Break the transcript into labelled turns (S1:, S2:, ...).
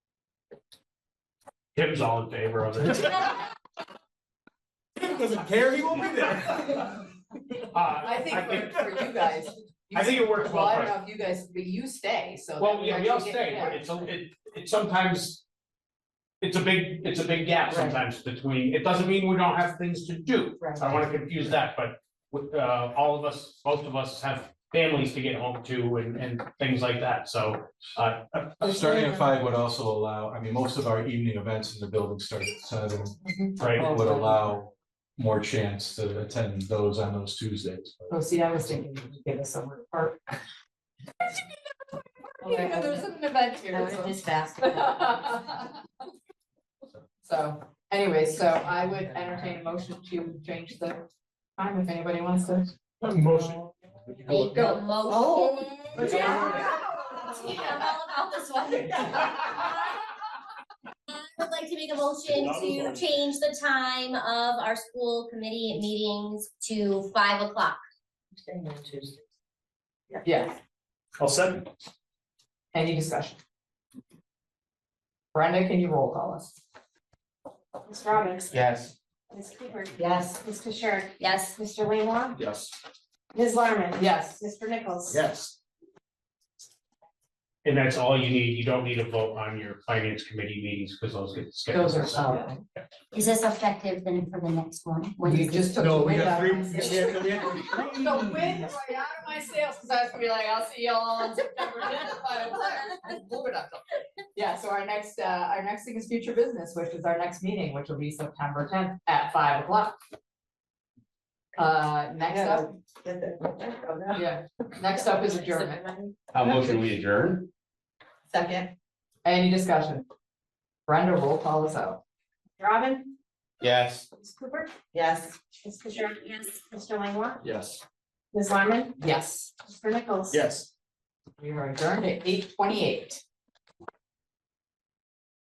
S1: Tim's all in favor of it.
S2: Tim doesn't care, he won't be there.
S1: Uh,
S3: I think for, for you guys. you-
S1: I think it works well
S3: I
S1: for
S3: don't
S1: us.
S3: know if you guys, but you stay, so. that
S1: Well, yeah, we all
S3: actually get-
S1: stay, but
S3: yeah.
S1: it's, a- it, it sometimes. It's a big, it's a big gap
S3: Right.
S1: sometimes between, it doesn't mean we don't have things to do,
S3: Right.
S1: I don't wanna confuse that, but. With, uh, all of us, most of us have families to get home to and, and things like that, so, uh,
S4: Starting at five would also allow, I mean, most of our evening events in the building start at seven,
S1: right.
S4: It would allow more chance to attend those on those Tuesdays.
S5: Oh, see, I was thinking you could get us somewhere to park.
S3: You know, there's an event here, so. So, anyway, so I would entertain a motion to change the time if anybody wants to.
S1: Motion.
S6: Make a
S3: Oh.
S6: motion. Oh. Yeah. I'm all about this one. I would like to make a motion to change the time of our school committee meetings to five o'clock.
S3: Yes,
S2: I'll second.
S3: any discussion? Brenda, can you roll call us?
S7: Ms. Roberts.
S2: Yes.
S7: Ms. Cooper.
S3: Yes.
S7: Ms. Fisher.
S6: Yes,
S7: Mr. Laylaw.
S2: Yes.
S7: Ms. Larmen.
S3: Yes,
S7: Mr. Nichols.
S2: Yes.
S1: And that's all you need, you don't need a vote on your finance committee meetings, cause those get scheduled.
S3: those are, solid.
S6: is this effective then for the next one? When
S3: you
S6: is it?
S3: just took the
S2: No, we
S3: wind
S2: got
S3: out
S2: three,
S3: of
S2: we
S3: my sails.
S2: have, we have three.
S3: The wind right out of my sails, cause I was gonna be like, I'll see y'all on September tenth, but I'm like, I blew it up. Yeah, so our next, uh, our next thing is future business, which is our next meeting, which will be September tenth at five o'clock. Uh, next up, yeah, next up is adjournment.
S8: How motion we adjourn?
S3: Second. Any discussion? Brenda, roll call us out.
S7: Robin.
S8: Yes.
S7: Ms. Cooper.
S3: Yes.
S7: Ms. Fisher.
S6: Yes.
S7: Mr. Laylaw.
S2: Yes.
S7: Ms. Larmen.
S3: Yes,
S7: Mr. Nichols.
S2: Yes.
S3: we are adjourned at eight twenty-eight.